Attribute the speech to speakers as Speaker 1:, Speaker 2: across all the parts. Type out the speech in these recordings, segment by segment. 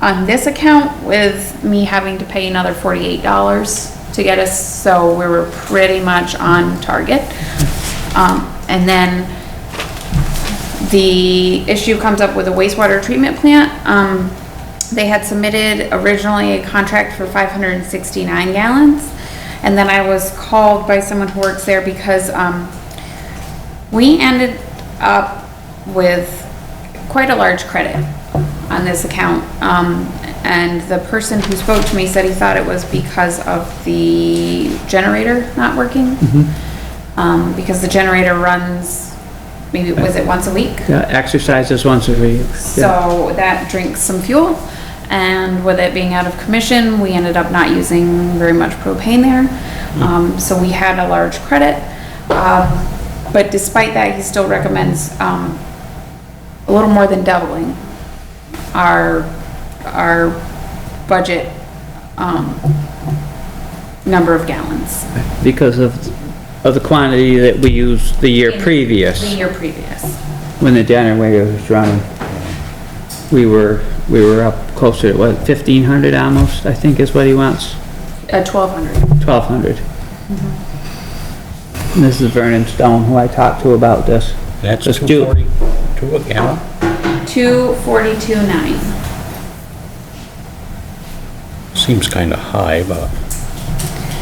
Speaker 1: on this account with me having to pay another forty-eight dollars to get us, so we were pretty much on target. Um, and then the issue comes up with a wastewater treatment plant. Um, they had submitted originally a contract for five hundred and sixty-nine gallons. And then I was called by someone who works there because, um, we ended up with quite a large credit on this account. Um, and the person who spoke to me said he thought it was because of the generator not working.
Speaker 2: Mm-hmm.
Speaker 1: Um, because the generator runs, maybe, was it once a week?
Speaker 2: Yeah, exercises once a week. Yeah.
Speaker 1: So that drinks some fuel, and with it being out of commission, we ended up not using very much propane there.
Speaker 2: Hmm.
Speaker 1: Um, so we had a large credit. Um, but despite that, he still recommends, um, a little more than doubling our, our budget, um, number of gallons.
Speaker 2: Because of, of the quantity that we used the year
Speaker 1: in The
Speaker 2: previous,
Speaker 1: year previous.
Speaker 2: when the generator was running. We were, we were up closer to, what, fifteen hundred almost, I think is what he wants,
Speaker 1: Uh, twelve hundred.
Speaker 2: twelve hundred.
Speaker 1: Mm-hmm.
Speaker 2: This is Vernon Stone, who I talked to about this.
Speaker 3: That's
Speaker 2: Let's do-
Speaker 3: 240, two a gallon?
Speaker 1: Two forty-two nine.
Speaker 3: Seems kind of high, but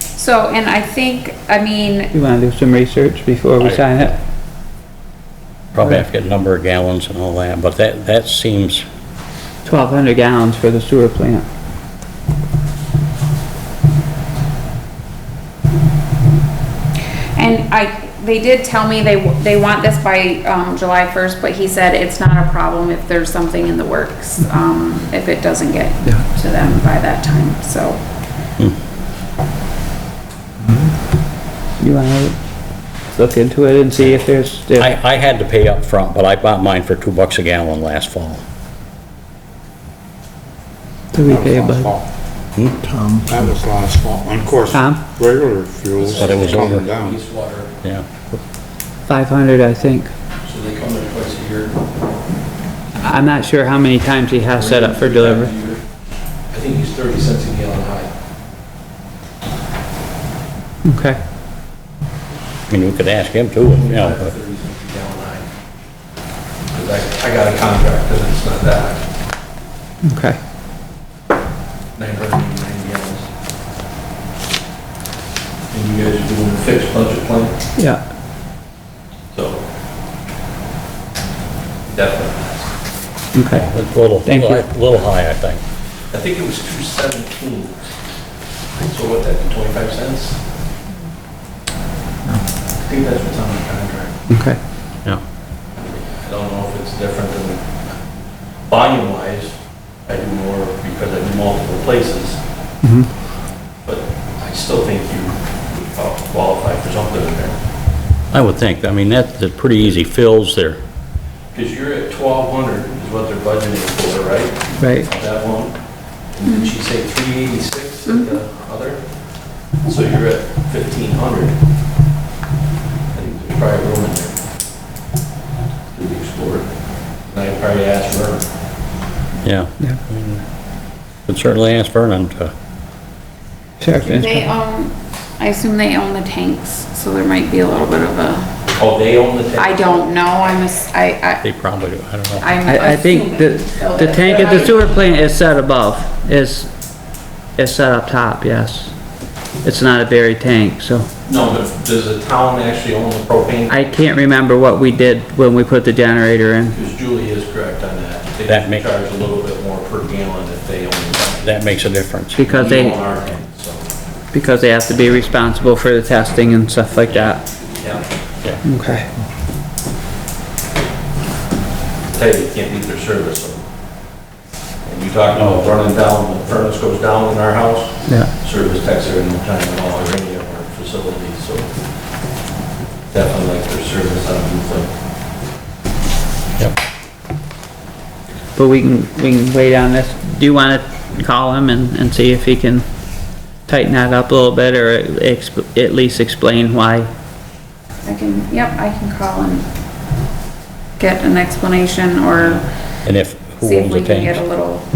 Speaker 1: So, and I think, I mean,
Speaker 2: You wanna do some research before we
Speaker 3: I-
Speaker 2: sign it?
Speaker 3: probably have to get a number of gallons and all that, but that, that seems,
Speaker 2: Twelve hundred gallons for the sewer plant.
Speaker 1: And I, they did tell me they, they want this by, um, July first, but he said it's not a problem if there's something in the works, um, if it doesn't get
Speaker 2: Yeah.
Speaker 1: to them by that time, so.
Speaker 2: You wanna look into it and see if there's, if-
Speaker 3: I, I had to pay up front, but I bought mine for two bucks a gallon last fall.
Speaker 2: do we pay
Speaker 4: That
Speaker 2: a
Speaker 4: was last
Speaker 2: budget?
Speaker 4: fall.
Speaker 3: Hmm?
Speaker 4: That was last fall, and of course,
Speaker 2: Tom?
Speaker 4: regular fuels
Speaker 3: But it was over.
Speaker 4: coming down.
Speaker 5: wastewater,
Speaker 3: Yeah,
Speaker 2: Five hundred, I think.
Speaker 5: so they come in twice a year.
Speaker 2: I'm not sure how many times he has set up for delivery.
Speaker 5: I think he's 30 cents a gallon high.
Speaker 2: Okay.
Speaker 3: I mean, you could ask him too, you know, but-
Speaker 5: 30 cents a gallon high. 'Cause I, I got a contract and it's not that,
Speaker 2: Okay.
Speaker 5: 999 gallons. And you guys are doing a fixed budget plan,
Speaker 2: Yeah.
Speaker 5: so definitely.
Speaker 2: Okay.
Speaker 3: it's a little,
Speaker 2: Thank you.
Speaker 3: little high, I think.
Speaker 5: I think it was 217. So what, that, be 25 cents? I think that's what's on the contract.
Speaker 2: Okay.
Speaker 3: Yeah.
Speaker 5: I don't know if it's different than, volume wise, I do more because I do multiple places.
Speaker 2: Mhm.
Speaker 5: But I still think you would qualify for something in there.
Speaker 3: I would think, I mean, that's that's pretty easy fills there.
Speaker 5: Because you're at twelve hundred is what they're budgeting for, right?
Speaker 2: Right.
Speaker 5: That one. And did she say three eighty-six at the other? So you're at fifteen hundred. I think there's probably room in there. To be explored. And I probably asked her.
Speaker 3: Yeah.
Speaker 2: Yeah.
Speaker 3: I mean, Could certainly ask Vernon to,
Speaker 2: Sheriff
Speaker 1: They
Speaker 2: Inspector.
Speaker 1: own, I assume they own the tanks, so there might be a little bit of a,
Speaker 5: Oh, they own the tank?
Speaker 1: I don't know, I'm, as- I, I,
Speaker 3: they probably, do, I don't know.
Speaker 1: I'm.
Speaker 2: I, I think the,
Speaker 1: assuming.
Speaker 2: the tank at the sewer plant is set above, is, is set up top, yes. It's not a buried tank, so
Speaker 5: No, but does the town actually own the propane?
Speaker 2: I can't remember what we did when we put the generator in.
Speaker 5: Because Julie is correct on that. They
Speaker 3: That make-
Speaker 5: Charge a little bit more per gallon if they own it.
Speaker 3: That makes a difference.
Speaker 2: Because
Speaker 5: We
Speaker 2: they,
Speaker 5: own our tank, so,
Speaker 2: because they have to be responsible for the testing and stuff like that.
Speaker 5: yeah.
Speaker 2: Okay.
Speaker 5: Tell you, you can't beat their service. so. And you talk about running down, the furnace goes down in our house,
Speaker 2: Yeah.
Speaker 5: service techs are in the time and all, or any of our facilities, so definitely like their service on the
Speaker 2: But we can, we can wait on this. Do you wanna call him and, and see if he can tighten that up a little bit or exp- at least explain why?
Speaker 1: I can, yep, I can call and get an explanation or
Speaker 3: And if, who
Speaker 1: see if
Speaker 3: owns
Speaker 1: we
Speaker 3: the
Speaker 1: can get a
Speaker 3: tanks?
Speaker 1: little